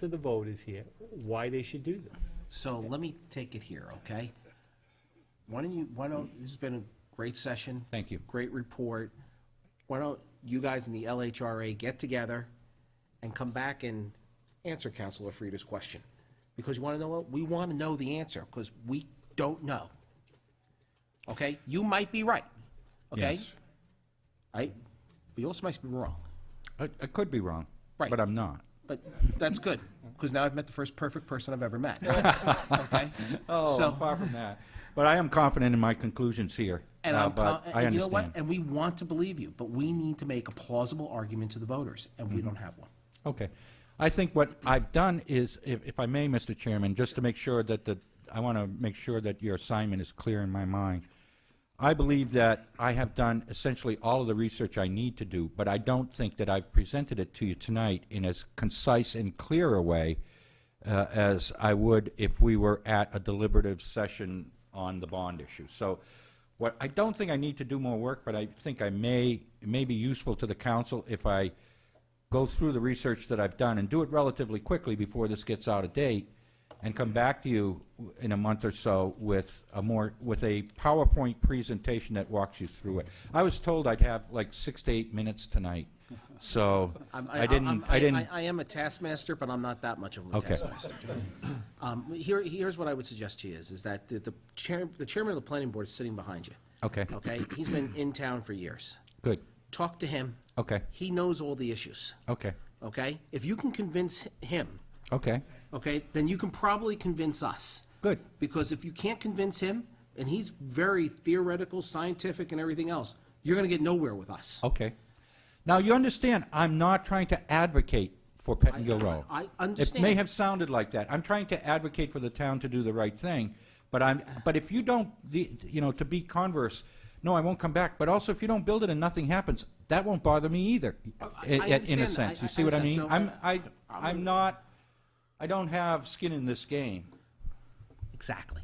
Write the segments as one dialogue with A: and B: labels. A: to the voters here why they should do this.
B: So let me take it here, okay? Why don't you, why don't, this has been a great session.
C: Thank you.
B: Great report. Why don't you guys in the LHRA get together and come back and answer Counselor Frieda's question? Because you want to know what? We want to know the answer, because we don't know. Okay? You might be right, okay?
C: Yes.
B: Right? But you also might be wrong.
C: I, I could be wrong,
B: Right.
C: but I'm not.
B: But that's good, because now I've met the first perfect person I've ever met. Okay? So-
C: Oh, far from that. But I am confident in my conclusions here.
B: And
C: uh,
B: I'm,
C: but
B: con-
C: I
B: and you know what? And
C: understand.
B: we want to believe you, but we need to make a plausible argument to the voters, and
C: Mm-hmm.
B: we don't have one.
C: Okay. I think what I've done is, if, if I may, Mr. Chairman, just to make sure that the, I want to make sure that your assignment is clear in my mind. I believe that I have done essentially all of the research I need to do, but I don't think that I've presented it to you tonight in as concise and clear a way uh, as I would if we were at a deliberative session on the bond issue. So what, I don't think I need to do more work, but I think I may, it may be useful to the council if I go through the research that I've done and do it relatively quickly before this gets out of date and come back to you w- in a month or so with a more, with a PowerPoint presentation that walks you through it. I was told I'd have like six to eight minutes tonight, so
B: I'm-
C: I didn't,
B: I'm-
C: I didn't.
B: I, I am a taskmaster, but I'm not that much of a
C: Okay.
B: taskmaster. Um, here, here's what I would suggest to you is, is that the, the chair, the chairman of the planning board is sitting behind you.
C: Okay.
B: Okay? He's been in town for years.
C: Good,
B: Talk to him.
C: Okay.
B: He knows all the issues,
C: okay,
B: okay? If you can convince him,
C: okay,
B: okay, then you can probably convince us.
C: good,
B: Because if you can't convince him, and he's very theoretical, scientific, and everything else, you're going to get nowhere with us.
C: okay. Now, you understand, I'm not trying to advocate for Pettingill
B: I-
C: Road.
B: I
C: It may
B: understand.
C: have sounded like that. I'm trying to advocate for the town to do the right thing, but I'm, but if you don't, the- you know, to be converse, no, I won't come back, but also if you don't build it and nothing happens, that won't bother me either, i-
B: I
C: i- in a
B: understand that.
C: sense.
B: I-
C: You see
B: I
C: what I mean?
B: understand,
C: I'm,
B: Joe,
C: I, I'm not, I don't have skin in this game.
B: Exactly.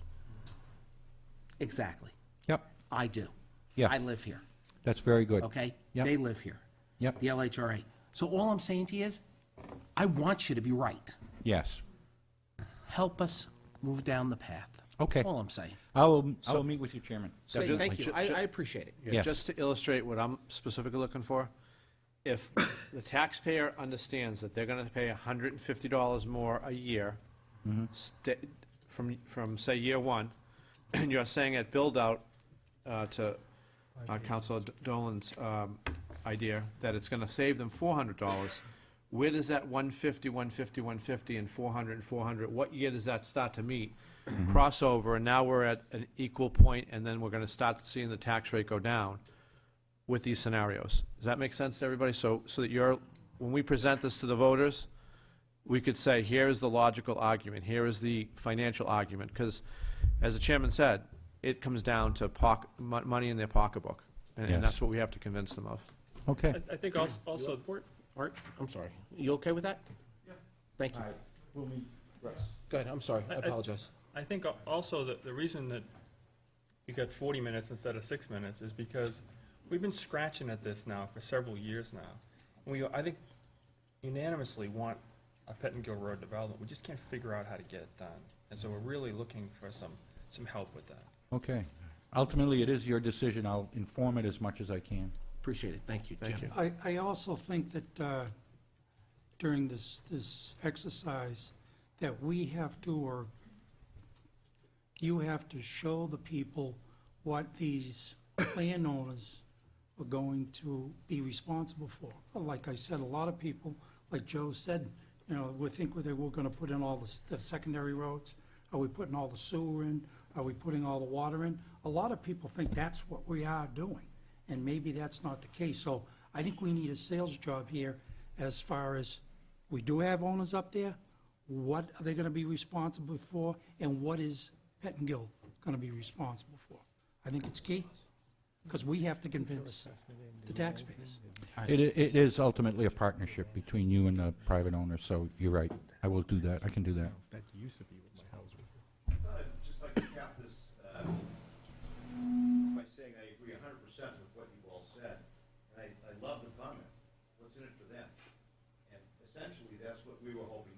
B: Exactly.
C: Yep,
B: I do.
C: Yeah.
B: I live here,
C: that's very good.
B: okay?
C: Yep.
B: They live here.
C: Yep.
B: The LHRA. So all I'm saying to you is, I want you to be right.
C: Yes.
B: Help us move down the path.
C: Okay.
B: That's all I'm saying.
C: I will, I will meet with you, Chairman.
B: So
C: Definitely.
B: Thank you.
D: Ju-
B: I,
D: ju-
B: I appreciate it.
D: Yeah,
C: Yes.
D: Just to illustrate what I'm specifically looking for, if the taxpayer understands that they're going to pay $150 more a year sta- from, from, say, year one, and you're saying at build-out uh, to uh, Counselor D- Dolan's um, idea, that it's going to save them $400, where does that 150, 150, 150, and 400, and 400, what year does that start to meet? Crossover, and now we're at an equal point, and then we're going to start seeing the tax rate go down with these scenarios. Does that make sense to everybody? So, so that you're, when we present this to the voters, we could say, here is the logical argument, here is the financial argument, because as the chairman said, it comes down to pock, mon- money in their pocketbook, and,
C: Yes.
D: and that's what we have to convince them of.
C: Okay.
A: I think also, also
B: Art, I'm sorry. You okay with that? Yeah. Thank you. Go ahead. I'm sorry. I apologize.
E: I think al- also that the reason that you got forty minutes instead of six minutes is because we've been scratching at this now for several years now. And we, I think unanimously want a Pettingill Road development. We just can't figure out how to get it done. And so we're really looking for some, some help with that.
C: Okay. Ultimately, it is your decision. I'll inform it as much as I can.
B: Appreciate it. Thank you, Jim.
F: I, I also think that uh, during this, this exercise, that we have to, or you have to show the people what these landowners are going to be responsible for. Like I said, a lot of people, like Joe said, you know, we think they were gonna put in all the, s- the secondary roads. Are we putting all the sewer in? Are we putting all the water in? A lot of people think that's what we are doing, and maybe that's not the case. So I think we need a sales job here as far as, we do have owners up there, what are they gonna be responsible for, and what is Pettingill gonna be responsible for? I think it's key, because we have to convince the taxpayers.
C: It, i- it is ultimately a partnership between you and the private owner, so you're right. I will do that. I can do that.
G: thought I'd Uh, just like to cap this uh, by saying I agree hundred percent with what you all said, and I, I love the comment, what's in it for them? And essentially, that's what we were hoping